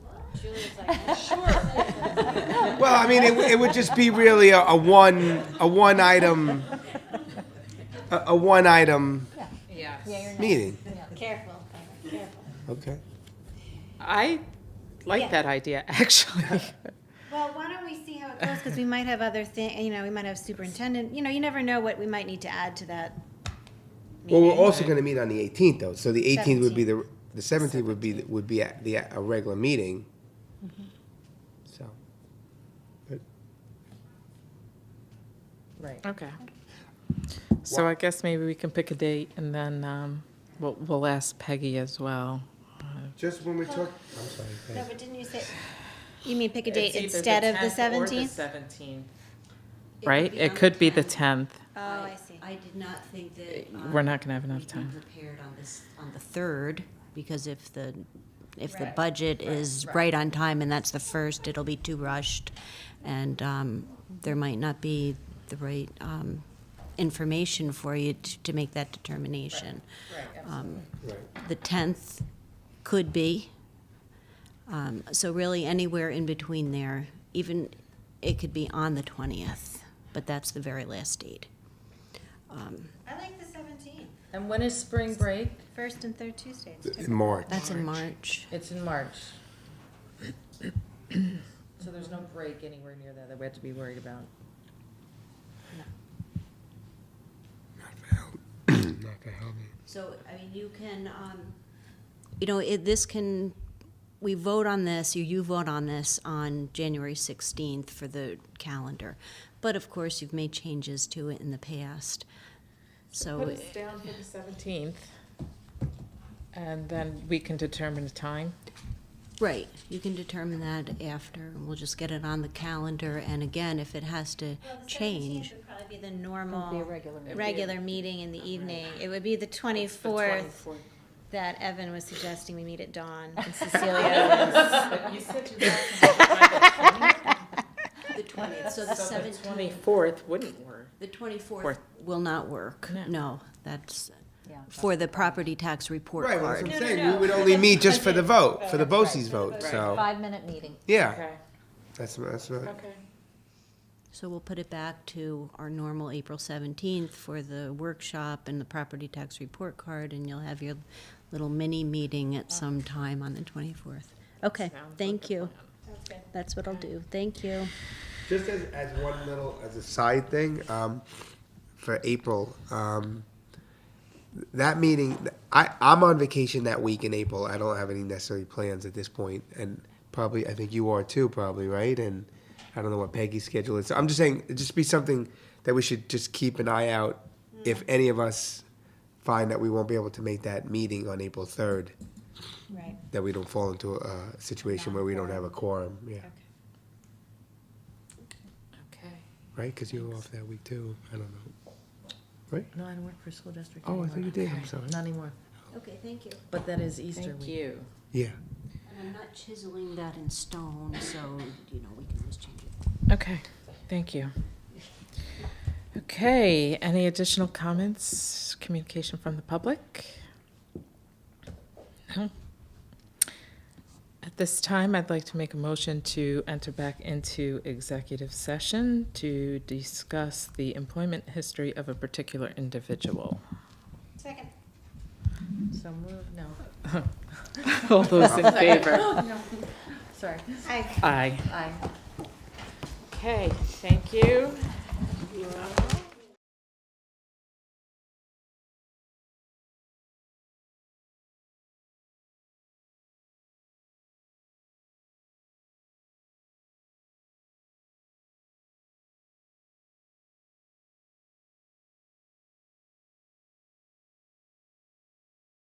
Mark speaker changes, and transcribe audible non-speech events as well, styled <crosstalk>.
Speaker 1: Well, I mean, it, it would just be really a, a one, a one item, a, a one item
Speaker 2: Yes.
Speaker 1: meeting.
Speaker 3: <laughs> Careful, careful.
Speaker 1: Okay.
Speaker 4: I
Speaker 3: Yeah.
Speaker 4: like that idea, <laughs> actually.
Speaker 3: Well, why don't we see how it goes, because we might have other thing, you know, we might have superintendent, you know, you never know what we might need to add to that.
Speaker 1: Well, we're
Speaker 3: meeting.
Speaker 1: also gonna meet on the eighteenth though, so the eighteenth would be the, the seventeenth would be, the- would be at the, a regular meeting.
Speaker 3: Mm-hmm.
Speaker 1: So,
Speaker 4: <laughs>
Speaker 2: Right.
Speaker 4: Okay. So I guess maybe we can pick a date and then um, we'll, we'll ask Peggy as well.
Speaker 1: just when we talk, I'm sorry.
Speaker 3: No, but didn't you say, you mean pick a date instead of the seventeenth?
Speaker 4: seventeenth. Right? It could be the tenth.
Speaker 3: Oh, I see.
Speaker 5: I did not think that. um,
Speaker 4: We're not gonna have enough
Speaker 5: we'd be
Speaker 4: time.
Speaker 5: Prepared on this, on the third, because if the, if the
Speaker 3: Right.
Speaker 5: budget is right on time and that's the first, it'll be too rushed. And um, there might not be the right um, information for you to, to make that determination. Um, The tenth could be. Um, So really anywhere in between there, even, it could be on the twentieth, but that's the very last date. Um,
Speaker 3: I like the seventeenth,
Speaker 2: And when is spring break?
Speaker 3: first and third Tuesdays.
Speaker 1: In March.
Speaker 5: That's in March.
Speaker 2: It's in
Speaker 3: <coughs>
Speaker 2: March. So there's no break anywhere near that that we have to be worried about.
Speaker 1: <clears throat>
Speaker 5: So, I mean, you can, um, you know, it, this can, we vote on this, you, you vote on this on January sixteenth for the calendar. But of course, you've made changes to it in the past. So,
Speaker 4: down for the seventeenth. And then we can determine a time.
Speaker 5: right, you can determine that after, and we'll just get it on the calendar, and again, if it has to change.
Speaker 3: Would probably be the normal, regular meeting in the evening. It would be the
Speaker 2: The
Speaker 3: twenty-fourth
Speaker 2: 24th.
Speaker 3: that Evan was suggesting we meet at dawn, <laughs> and Cecilia was.
Speaker 2: But you said
Speaker 3: <laughs>
Speaker 2: you had to
Speaker 5: The twentieth, so the
Speaker 2: by the
Speaker 5: seventeenth,
Speaker 4: Twenty-fourth wouldn't work.
Speaker 5: the twenty-fourth
Speaker 4: Fourth.
Speaker 5: will not work,
Speaker 4: No.
Speaker 5: no, that's for the property tax report
Speaker 1: Right, well, that's
Speaker 5: card.
Speaker 1: what I'm
Speaker 3: no,
Speaker 1: saying,
Speaker 3: no.
Speaker 1: we would only meet just for the vote, for the BOSI's vote, so,
Speaker 6: Five-minute meeting.
Speaker 1: yeah,
Speaker 4: Okay,
Speaker 1: that's, that's right.
Speaker 4: okay.
Speaker 5: So we'll put it back to our normal April 17th for the workshop and the property tax report card, and you'll have your little mini meeting at some time on the 24th. Okay,
Speaker 4: like
Speaker 5: thank you. That's what I'll do. Thank you.
Speaker 1: Just as, as one little, as a side thing, um, for April, um, that meeting, I, I'm on vacation that week in April. I don't have any necessary plans at this point, and probably, I think you are too, probably, right? And I don't know what Peggy's schedule is. I'm just saying, it'd just be something that we should just keep an eye out if any of us find that we won't be able to make that meeting on April 3rd,
Speaker 3: Right.
Speaker 1: that we don't fall into a situation where we don't have a quorum, yeah.
Speaker 2: Okay.
Speaker 1: Right, because you were off that week too. I don't know. Right?
Speaker 2: No, I don't work for a school district
Speaker 1: Oh, I
Speaker 2: anymore.
Speaker 1: thought you did. I'm sorry.
Speaker 2: Not anymore.
Speaker 5: Okay, thank you.
Speaker 2: But that is Easter
Speaker 4: Thank
Speaker 2: week.
Speaker 4: you.
Speaker 1: Yeah.
Speaker 5: And I'm not chiseling that in stone, so, you know, we can always change it.
Speaker 4: Okay, thank you. Okay, any additional comments, communication from the public? No. At this time, I'd like to make a motion to enter back into executive session to discuss the employment history of a particular individual.
Speaker 3: Second.
Speaker 2: So move, no,
Speaker 4: All those <laughs> in favor?
Speaker 2: sorry.
Speaker 3: Aye.
Speaker 4: Aye.
Speaker 2: Aye.
Speaker 4: Okay, thank you.